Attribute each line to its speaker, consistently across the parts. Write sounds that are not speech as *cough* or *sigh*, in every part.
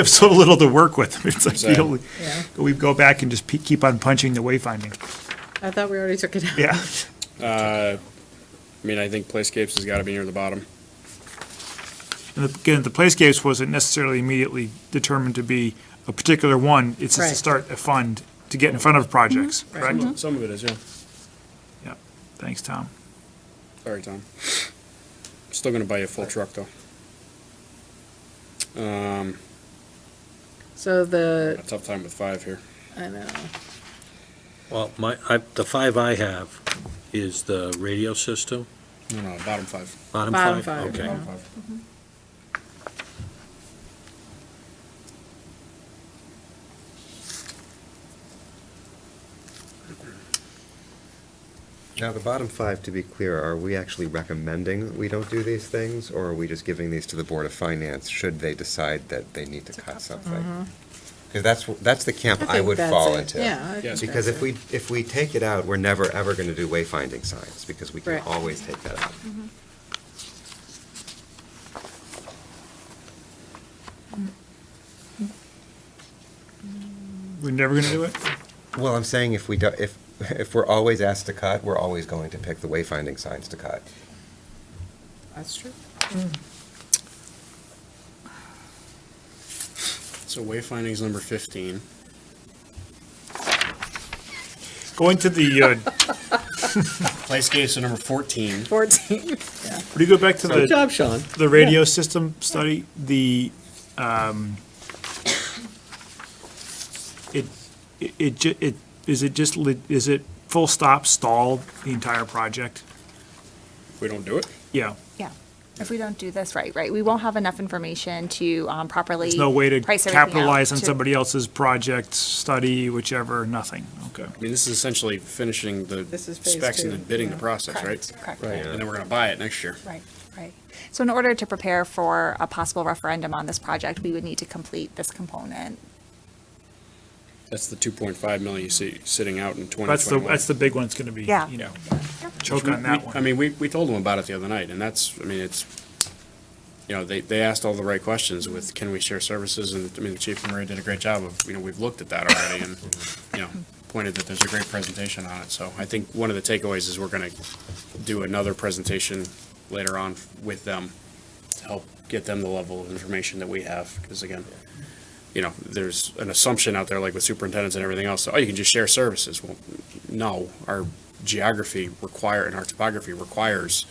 Speaker 1: have so little to work with. *laughs* It's like, the
Speaker 2: Exactly.
Speaker 1: only-
Speaker 3: Yeah.
Speaker 1: we go back and just pe- keep on punching the wayfinding.
Speaker 3: I thought we already took it out.
Speaker 1: Yeah.
Speaker 2: Uh, I mean, I think Playscapes has got to be near the bottom.
Speaker 1: And again, the playscapes wasn't necessarily immediately determined to be a particular one. It's just to
Speaker 3: Right.
Speaker 1: start a fund to get in front of projects, correct?
Speaker 3: Mm-hmm.
Speaker 2: Some of it is, yeah.
Speaker 1: Yeah. Thanks, Tom.
Speaker 2: Sorry, Tom. Still gonna buy you a full truck, though. Um,
Speaker 3: So
Speaker 2: a
Speaker 3: the,
Speaker 2: tough time with five here.
Speaker 3: I know,
Speaker 4: Well, my, I, the five I have is the radio system,
Speaker 2: No, no, bottom five.
Speaker 4: bottom
Speaker 3: Bottom
Speaker 4: five?
Speaker 3: five,
Speaker 4: Okay.
Speaker 3: yeah.
Speaker 2: Bottom five.
Speaker 5: Now, the bottom five, to be clear, are we actually recommending that we don't do these things? Or are we just giving these to the Board of Finance should they decide that they need to cut something? Because that's, wh- that's the camp I
Speaker 3: think
Speaker 5: would
Speaker 3: that's
Speaker 5: fall
Speaker 3: it.
Speaker 5: into.
Speaker 3: Yeah, I think
Speaker 2: Yes.
Speaker 5: Because
Speaker 3: that's
Speaker 5: if
Speaker 3: it.
Speaker 5: we, if we take it out, we're never, ever going to do wayfinding signs, because we can
Speaker 3: Right.
Speaker 5: always take that out.
Speaker 1: We're never going to do it?
Speaker 5: Well, I'm saying if we, do- if, if we're always asked to cut, we're always going to pick the wayfinding signs to cut.
Speaker 3: that's true.
Speaker 2: So wayfinding's number fifteen.
Speaker 1: Going to the, uh,
Speaker 2: Playscapes are number fourteen.
Speaker 3: 14.
Speaker 1: Would you go back to
Speaker 4: Good
Speaker 1: the,
Speaker 4: job, Sean.
Speaker 1: the radio system study, the, um, it, it- it, ju- it, is it just, lit- is it full stop stall the entire project?
Speaker 2: We don't do it?
Speaker 1: Yeah,
Speaker 6: Yeah, if we don't do this right, right, we won't have enough information to um, properly.
Speaker 1: there's no way to
Speaker 6: price everything out
Speaker 1: capitalize on
Speaker 6: to-
Speaker 1: somebody else's project, study, whichever, nothing, okay.
Speaker 2: I mean, this is essentially finishing the
Speaker 3: This is phase
Speaker 2: specs and
Speaker 3: two,
Speaker 2: then bidding the
Speaker 3: yeah.
Speaker 2: process, right?
Speaker 6: Correct, correct.
Speaker 5: Right.
Speaker 2: And then we're gonna buy it next year.
Speaker 6: Right, right. So in order to prepare for a possible referendum on this project, we would need to complete this component.
Speaker 2: That's the two point five million you see sitting out in twenty
Speaker 1: That's the,
Speaker 2: twenty-one.
Speaker 1: that's the big one, it's gonna be,
Speaker 6: Yeah.
Speaker 1: you know, choke on that
Speaker 2: I
Speaker 1: one.
Speaker 2: mean, we, we told them about it the other night, and that's, I mean, it's, you know, they, they asked all the right questions with, can we share services? And, I mean, Chief Murray did a great job of, you know, we've looked at that already and, you know, pointed that there's a great presentation on it. So I think one of the takeaways is we're gonna do another presentation later on with them to help get them the level of information that we have, because again, you know, there's an assumption out there, like with superintendents and everything else, oh, you can just share services. Well, no, our geography require, and our topography requires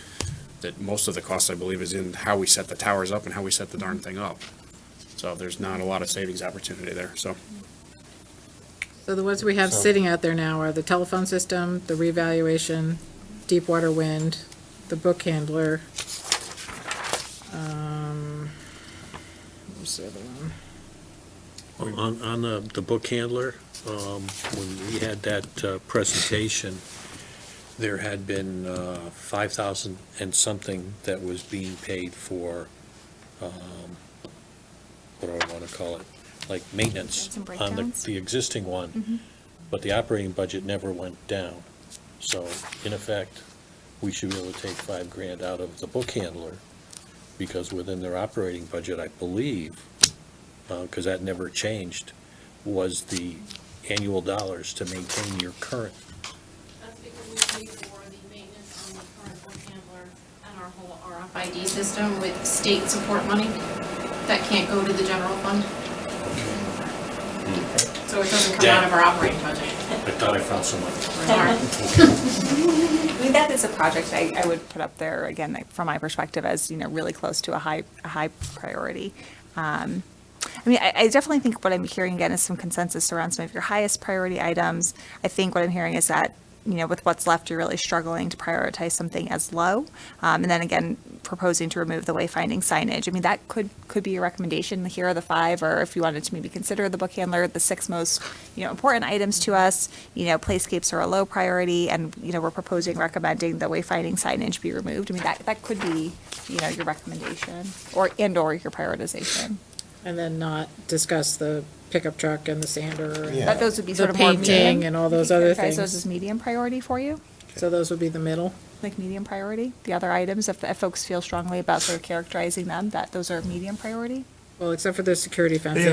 Speaker 2: that most of the cost, I believe, is in how we set the towers up and how we set the darn thing up. So there's not a lot of savings opportunity there, so.
Speaker 3: *laughs* So the ones we have sitting out there now are the telephone system, the revaluation, deep water wind, the book handler. Um, What's the other one?
Speaker 4: On, on the, the book handler, um, when we had that, uh, presentation, there had been, uh, five thousand and something that was being paid for, um, what do I wanna call it? Like maintenance
Speaker 6: Maintenance and
Speaker 4: on the,
Speaker 6: breakdowns?
Speaker 4: the existing one, but the operating budget never went down. So in effect, we should be able to take five grand out of the book handler, because within their operating budget, I believe, because uh, that never changed, was the annual dollars to maintain your current.
Speaker 7: That's because we pay for the maintenance on the current book handler and our whole RFID system with state support money that can't go to the general fund. So it doesn't come out of our operating budget.
Speaker 4: I thought I found someone.
Speaker 7: Sorry.
Speaker 6: I mean, that is a project I, I would put up there, again, like, from my perspective, as, you know, really close to a high, a high priority. Um, I mean, I, I definitely think what I'm hearing again is some consensus around some of your highest priority items. I think what I'm hearing is that, you know, with what's left, you're really struggling to prioritize something as low. Um, and then again, proposing to remove the wayfinding signage. I mean, that could, could be a recommendation. Here are the five, or if you wanted to maybe consider the book handler, the six most, you know, important items to us. You know, playscapes are a low priority and, you know, we're proposing, recommending the wayfinding signage be removed. I mean, that, that could be, you know, your recommendation or, and or your prioritization.
Speaker 3: And then not discuss the pickup truck and the sander.
Speaker 5: Yeah.
Speaker 6: But those would be
Speaker 3: The
Speaker 6: sort of more medium.
Speaker 3: painting and all
Speaker 6: Would you
Speaker 3: those other
Speaker 6: characterize
Speaker 3: things.
Speaker 6: Those as medium priority for you,
Speaker 3: So those would be the middle.
Speaker 6: like medium priority? The other items, if, if folks feel strongly about sort of characterizing them, that those are medium priority?
Speaker 3: Well, except for the security fence.